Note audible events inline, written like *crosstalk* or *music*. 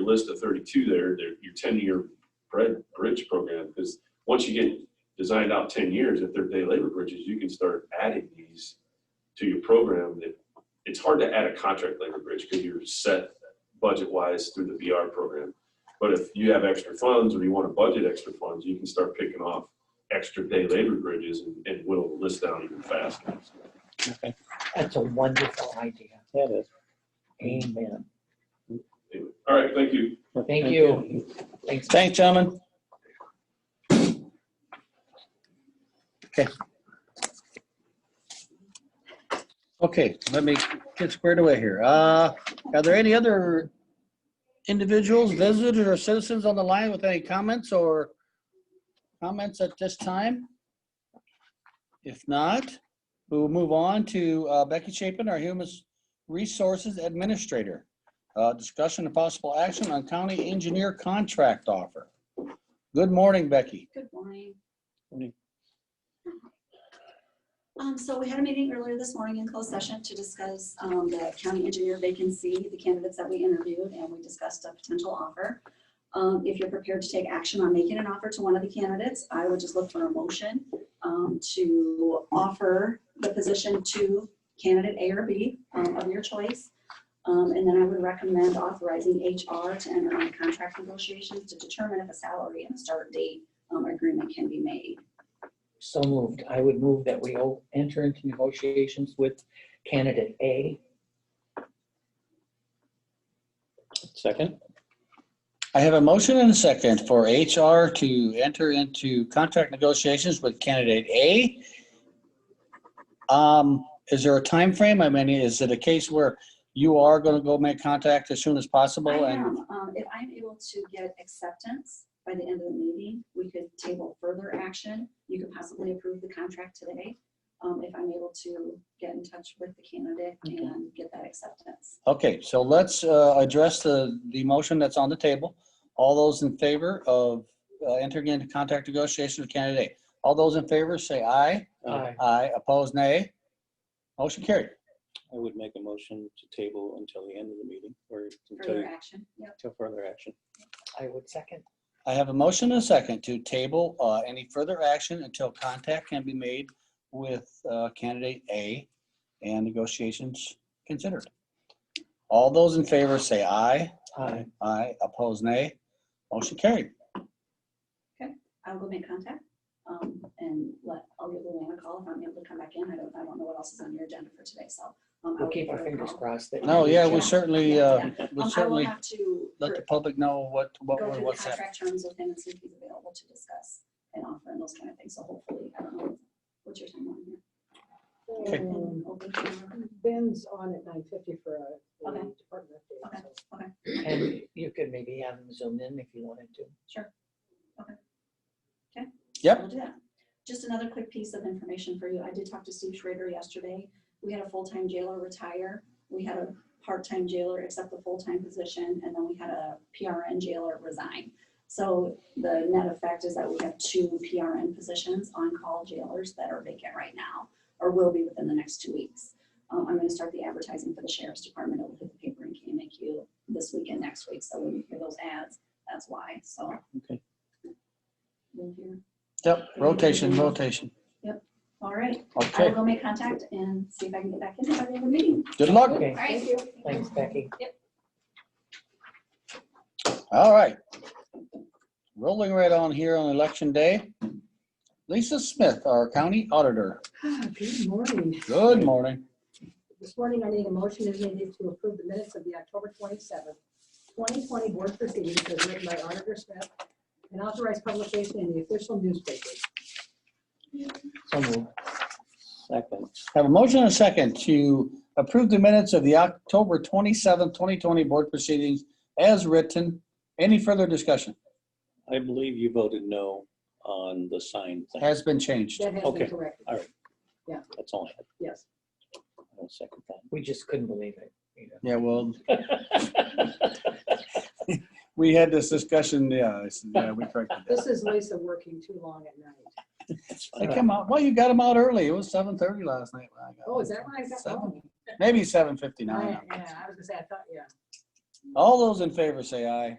list of thirty-two there, there, your ten-year bridge, bridge program, because once you get designed out ten years, if they're day labor bridges, you can start adding these to your program that, it's hard to add a contract labor bridge because you're set budget-wise through the VR program. But if you have extra funds or you want to budget extra funds, you can start picking off extra day labor bridges and, and will list down even faster. That's a wonderful idea. Yeah, it is. Amen. Anyway, All right, thank you. Well, Thank you. Thanks. Thanks, gentlemen. Okay. Okay, let me get squared away here. Uh, are there any other individuals, visitors, or citizens on the line with any comments or comments at this time? If not, we'll move on to uh, Becky Chapin, our Human Resources Administrator. Uh, Discussion and possible action on county engineer contract offer. Good morning, Becky. Good morning. Morning. Um, so we had a meeting earlier this morning in closed session to discuss, um, the county engineer vacancy, the candidates that we interviewed, and we discussed a potential offer. Um, if you're prepared to take action on making an offer to one of the candidates, I would just look for a motion, um, to offer the position to candidate A or B, um, of your choice. Um, and then I would recommend authorizing HR to enter into contract negotiations to determine if a salary and a start date um, agreement can be made. So moved. I would move that we o- enter into negotiations with candidate A. Second? I have a motion and a second for HR to enter into contract negotiations with candidate A. Um, Is there a time frame? I mean, is it a case where you are going to go make contact as soon as I possible? And am, um, if I'm able to get acceptance by the end of the meeting, we could table further action. You could possibly approve the contract today. Um, if I'm able to get in touch with the candidate and get that acceptance. Okay, so let's uh, address the, the motion that's on the table. All those in favor of uh, entering into contract negotiations with candidate A. All those in favor, say aye. I Aye, opposed, nay. Motion carried. would make a motion to table until the end of the meeting or until, Further action, yep. until further action. I would second. I have a motion and a second to table uh, any further action until contact can be made with uh, candidate A and negotiations considered. All those in favor say aye. Aye. Aye, opposed, nay. Motion carried. I'll go make contact. Um, and let, I'll give Luann a call if I'm able to come back in. I don't, I don't know what else is on your agenda for today, so. um, I We'll will keep give our her a fingers call. crossed. that- No, yeah, Yeah. we certainly, Yeah, uh, yeah. we Um, I will certainly have to. let for- the public know what, what, go we're- through the what's happening. contract terms with him and see if he's available to discuss an offer and those kind of things. So hopefully, I don't know, what's your timeline here? Um, Okay. And open camera. Ben's on at nine fifty for a a Okay. department Okay. update. so- And you could maybe have them zoom in if you wanted to. Sure. Yep. We'll do that. Just another quick piece of information for you. I did talk to Steve Schrader yesterday. We had a full-time jailer retire. We had a part-time jailer accept the full-time position, and then we had a PRN jailer resign. So the net effect is that we have two PRN positions on-call jailers that are vacant right now, or will be within the next two weeks. Um, I'm gonna start the advertising for the sheriff's department over the paper in KMAQ this week and next week, so when you hear those ads, that's why, so. Okay. We'll hear. Yep, rotation, rotation. All right, I will Okay, go make contact and see if I can get back in by the end of the meeting. good luck. Okay, Thank Thank you. you. thanks, Becky. All right. Rolling right on here on election day. Lisa Smith, our county auditor. Ah, Good morning. Good morning. This morning, I need a motion is needed to approve the minutes of the October twenty-seventh, twenty twenty board proceedings as written by Auditor Smith and authorized publication in the official newspaper. So moved. Second. Have a motion and a second to approve the minutes of the October 27, 2020 board proceedings as written. Any further discussion? I believe you voted no on the sign thing. Has been changed. That has Okay. been corrected, That's all I had. yes. I'll second We just couldn't believe it. you know. Yeah, well, that. *laughs* we had this discussion, yeah, I said, yeah, we corrected that. This is Lisa working too long at night. That's They fine. come out, well, you got them out early. It was 7:30 last night. when I got Oh, is them. that when I got Seven. home? Oh, Maybe I- 7:59. Yeah, I was gonna say, I thought, yeah. All those in favor say aye.